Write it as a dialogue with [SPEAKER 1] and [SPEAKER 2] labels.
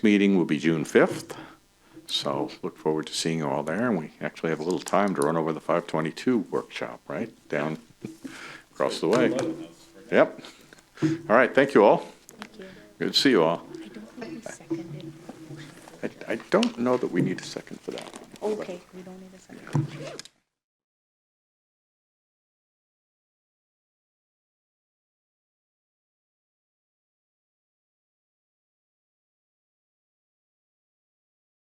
[SPEAKER 1] meeting will be June 5th. So look forward to seeing you all there. And we actually have a little time to run over the 522 workshop, right? Down across the way. Yep. All right. Thank you all. Good to see you all.
[SPEAKER 2] I don't think we seconded.
[SPEAKER 1] I, I don't know that we need a second for that.
[SPEAKER 2] Okay, we don't need a second.